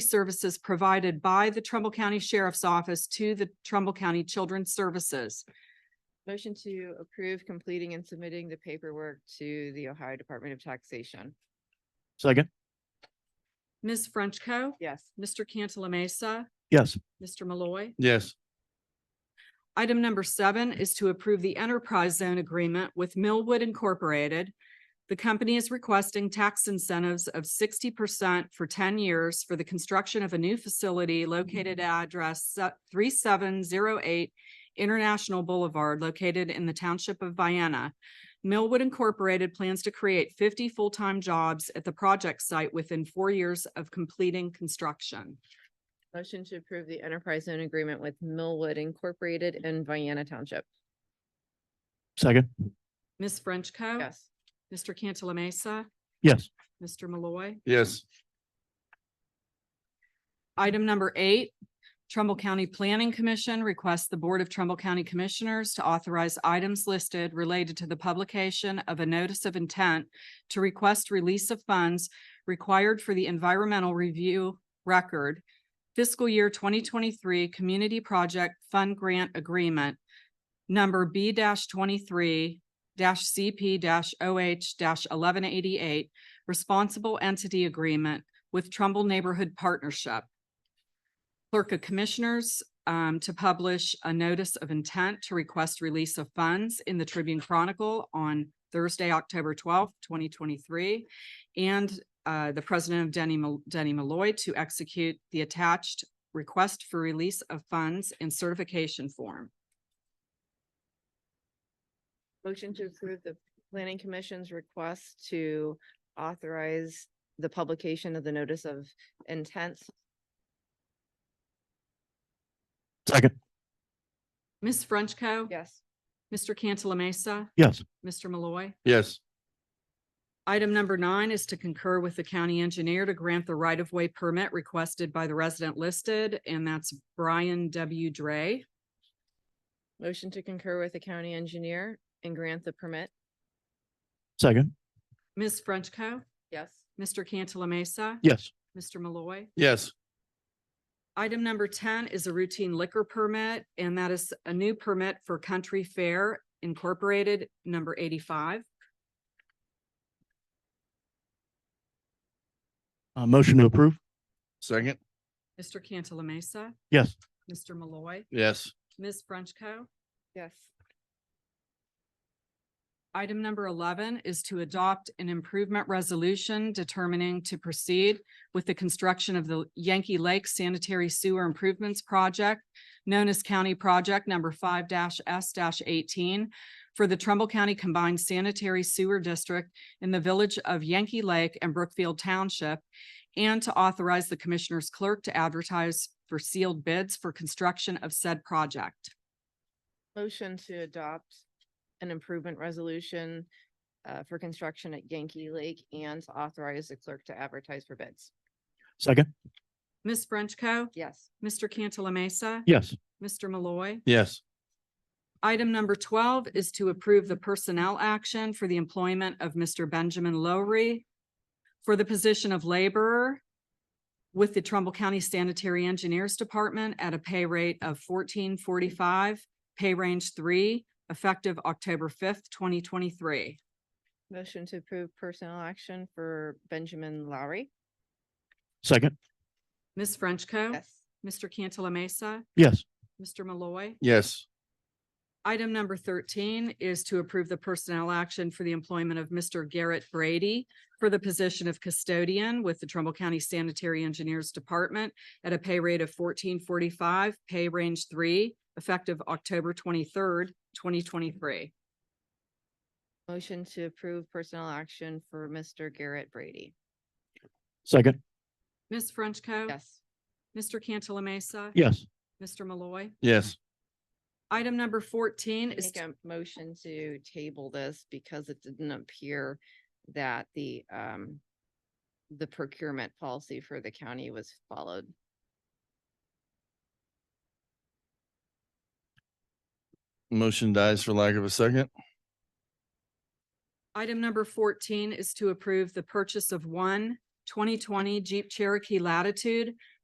services provided by the Trumbull County Sheriff's Office to the Trumbull County Children's Services. Motion to approve completing and submitting the paperwork to the Ohio Department of Taxation. Second, Ms. Frenchco. Yes. Mr. Cantala Mesa. yes. Mr. Malloy. Yes. Item number seven is to approve the enterprise zone agreement with Millwood Incorporated. The company is requesting tax incentives of sixty percent for ten years for the construction of a new facility located at address three seven zero eight International Boulevard located in the township of Vienna. Millwood Incorporated plans to create fifty full-time jobs at the project site within four years of completing construction. Motion to approve the enterprise zone agreement with Millwood Incorporated in Vienna Township. Second, Ms. Frenchco. Yes. Mr. Cantala Mesa. yes. Mr. Malloy. Yes. Item number eight, Trumbull County Planning Commission requests the Board of Trumbull County Commissioners to authorize items listed related to the publication of a notice of intent to request release of funds required for the environmental review record fiscal year twenty twenty-three Community Project Fund Grant Agreement number B twenty-three CP OH eleven eighty-eight Responsible Entity Agreement with Trumbull Neighborhood Partnership. Clerk of Commissioners um, to publish a notice of intent to request release of funds in the Tribune Chronicle on Thursday, October twelfth, twenty twenty-three. And uh, the President of Denny, Mal- Denny Malloy to execute the attached request for release of funds in certification form. Motion to approve the Planning Commission's request to authorize the publication of the notice of intent. Second, Ms. Frenchco. Yes. Mr. Cantala Mesa. yes. Mr. Malloy. Yes. Item number nine is to concur with the county engineer to grant the right-of-way permit requested by the resident listed, and that's Brian W. Dre. Motion to concur with the county engineer and grant the permit. Second, Ms. Frenchco. Yes. Mr. Cantala Mesa. yes. Mr. Malloy. Yes. Item number ten is a routine liquor permit, and that is a new permit for Country Fair Incorporated, number eighty-five. Uh, motion to approve? Second, Mr. Cantala Mesa. yes. Mr. Malloy. Yes. Ms. Frenchco. Yes. Item number eleven is to adopt an improvement resolution determining to proceed with the construction of the Yankee Lake Sanitary Sewer Improvements Project, known as County Project Number five S eighteen for the Trumbull County Combined Sanitary Sewer District in the Village of Yankee Lake and Brookfield Township, and to authorize the Commissioner's Clerk to advertise for sealed bids for construction of said project. Motion to adopt an improvement resolution uh, for construction at Yankee Lake and to authorize the clerk to advertise for bids. Second, Ms. Frenchco. Yes. Mr. Cantala Mesa. yes. Mr. Malloy. Yes. Item number twelve is to approve the personnel action for the employment of Mr. Benjamin Lowry for the position of laborer with the Trumbull County Sanitary Engineers Department at a pay rate of fourteen forty-five, pay range three, effective October fifth, twenty twenty-three. Motion to approve personnel action for Benjamin Lowry. Second, Ms. Frenchco. Mr. Cantala Mesa. yes. Mr. Malloy. Yes. Item number thirteen is to approve the personnel action for the employment of Mr. Garrett Brady for the position of custodian with the Trumbull County Sanitary Engineers Department at a pay rate of fourteen forty-five, pay range three, effective October twenty-third, twenty twenty-three. Motion to approve personnel action for Mr. Garrett Brady. Second, Ms. Frenchco. Yes. Mr. Cantala Mesa. yes. Mr. Malloy. Yes. Item number fourteen is, Make a motion to table this because it didn't appear that the um the procurement policy for the county was followed. Motion dies for lack of a second? item number fourteen is to approve the purchase of one twenty twenty Jeep Cherokee Latitude